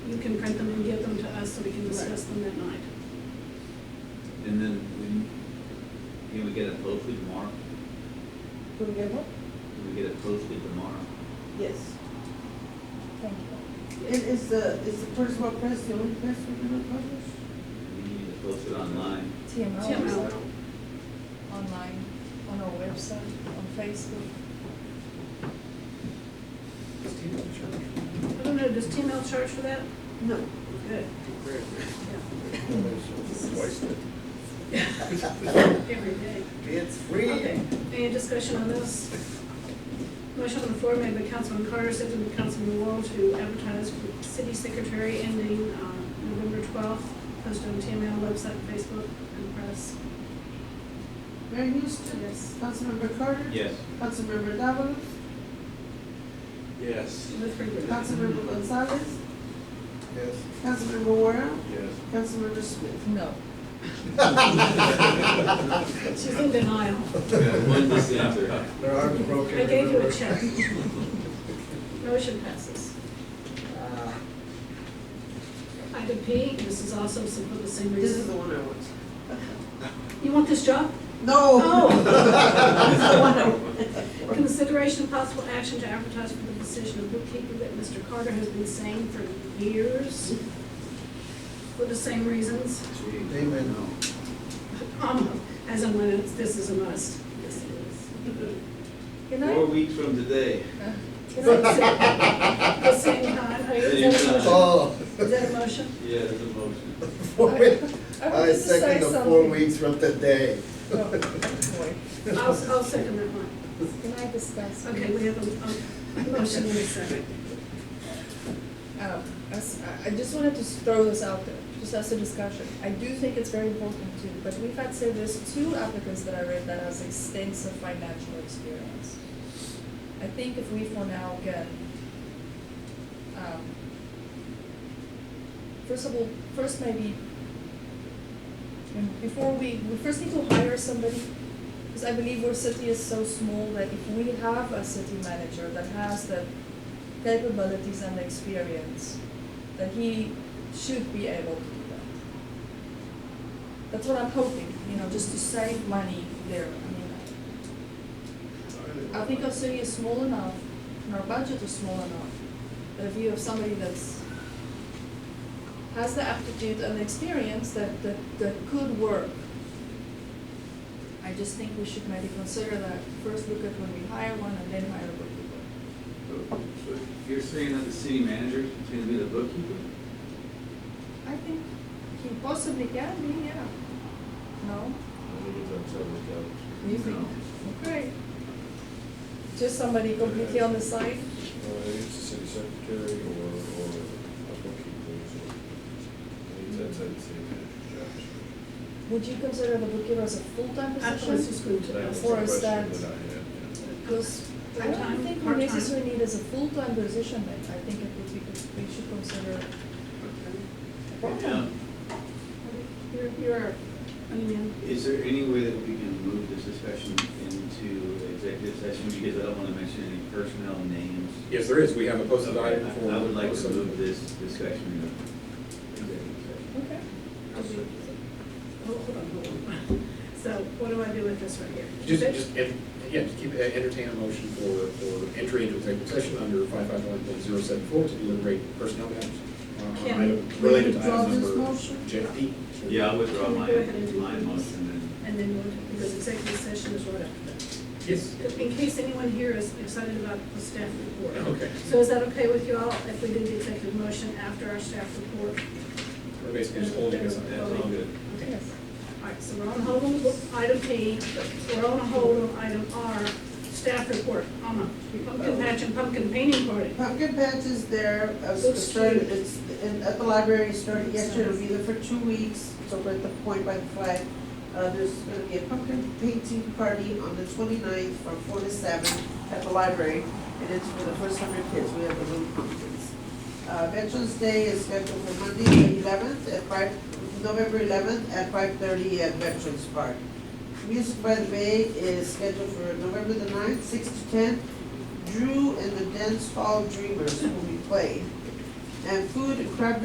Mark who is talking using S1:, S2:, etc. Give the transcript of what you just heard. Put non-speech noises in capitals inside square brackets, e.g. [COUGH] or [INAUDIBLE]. S1: Can we get it posted tomorrow?
S2: Can we get one?
S1: Can we get it posted tomorrow?
S2: Yes.
S3: Thank you.
S2: Is, is the, is the Prince Hall Press the only press we're gonna publish?
S1: We need to post it online.
S3: TML.
S4: TML.
S3: Online, on our website, on Facebook.
S4: I don't know, does T L charge for that?
S2: No. Good.
S5: Wasted.
S4: Every day.
S5: It's
S4: Okay, any discussion on this? Motion on the floor made by Councilman Carter, seconded by Councilman Wall to advertise for city secretary ending uh, November twelfth, posted on TML website, Facebook, and press.
S2: Mayor Houston?
S4: Yes.
S2: Councilmember Carter?
S1: Yes.
S2: Councilmember Davalos?
S5: Yes.
S4: With regret.
S2: Councilmember Gonzalez?
S5: Yes.
S2: Councilmember Warren?
S5: Yes.
S2: Councilmember Smith?
S3: No.
S4: [LAUGHS] She's in denial.
S1: One dissenter.
S5: Their arms broken.
S4: I gave you a
S5: remember?
S4: check. Motion passes. Uh,
S5: Ah,
S4: Item P, this is also some- for the same
S2: This is
S4: reason.
S2: the one I want.
S4: You want this job?
S2: No! Oh. [LAUGHS] This is the one I
S4: Oh.
S2: want.
S4: Consideration of possible action to advertise for the position of bookkeeper that Mr. Carter has been saying for years for the same reasons,
S1: Jeez.
S5: Amen.
S1: No.
S4: um, as in when it's, this is a must. Yes, it
S3: Can
S1: Four
S3: I? uh,
S1: weeks from today.
S4: is. Can I say- at The same time, Are you- is that a motion?
S5: Oh.
S4: Is that a motion?
S1: Yeah, it's a motion.
S5: [LAUGHS] Four weeks.
S3: I wanted
S5: I
S3: to say
S5: second the four
S3: something.
S5: weeks from today.
S3: No. Boy.
S4: Oh, I'll, I'll second that one.
S3: Can I discuss?
S4: Okay, we have a, a motion in a second.
S3: Um, as- I I just wanted to throw this out there, just as a discussion. I do think it's very important too, but we've had, say, there's two applicants that I read that has extensive financial experience. I think if we for now can, um, first of all, first maybe, and before we, we first need to hire somebody, because I believe our city is so small that if we have a city manager that has the capabilities and experience, that he should be able to do that. That's what I'm hoping, you know, just to save money there, I mean, I think our city is small enough, and our budget is small enough, that if you have somebody that's, has the aptitude and experience that, that, that could work, I just think we should maybe consider that, first look at when we hire one and then hire a bookkeeper.
S1: You're saying that the city manager is gonna be the bookkeeper?
S3: I think he possibly can be, yeah. No? You think?
S1: No.
S3: Okay. Just somebody completely on the side?
S6: Uh, it's the city secretary or, or a bookkeeper, so. It's outside the city manager's job.
S3: Would you consider the bookkeeper as a full-time
S4: I was
S3: position?
S4: just going to
S6: That was
S4: ask.
S6: the
S3: Or is
S6: question
S3: that-
S6: I had, yeah.
S3: Because I don't
S4: Full-time,
S3: think we
S4: part-time.
S3: necessarily need as a full-time position, but I think it would be, good- we should consider.
S1: Yeah.
S4: You're, you're, I mean,
S1: Is there any way that we can move this discussion into executive session, because I don't wanna mention any personnel names?
S7: Yes, there is, we have a posted
S1: Okay,
S7: item for.
S1: I I would like to move this discussion into executive session.
S3: Okay.
S4: oh, hold on, hold on. So what do I do with this right here?
S7: Just, just, en- yeah, just keep, uh, entertain a motion for, for entry into executive session under five five one point zero seven four to deliberate personnel matters. uh,
S4: Can
S7: item
S2: we
S7: Related to
S2: withdraw
S7: item
S2: this
S7: number
S2: motion?
S7: JD.
S1: Yeah, I withdraw
S4: Can we
S1: my,
S4: go ahead and do
S1: my
S4: these?
S1: motion
S4: And then we'll, because executive session is right after
S7: Yes.
S4: that. In case anyone here is excited about the staff report.
S7: Okay,
S4: So is that okay with you all if we do the executive motion after our staff report?
S7: we're basically just holding this
S1: and
S7: on.
S1: that's all good.
S4: Okay.
S3: Yes.
S4: All right, so we're on hold on item P, we're on hold on item R, staff report, Alma, pumpkin patch and pumpkin painting party.
S2: Pumpkin Patch is there, uh,
S4: Looks
S2: it's started,
S4: cute.
S2: it's in, at the library, it started
S4: Looks
S2: yesterday, it'll be
S4: nice.
S2: there for two weeks, so we're at the point by the flag. Uh, there's gonna be a pumpkin painting party on the 29th from four to seven at the library, and it's for the first hundred kids, we have the little pumpkins. Uh, Veterans Day is scheduled for Monday, the eleventh, at five, November eleventh, at five thirty at Veterans Park. Music by the Bay is scheduled for November the 9th, six to ten, Drew and the Dance Hall Dreamers will be played. And food, crab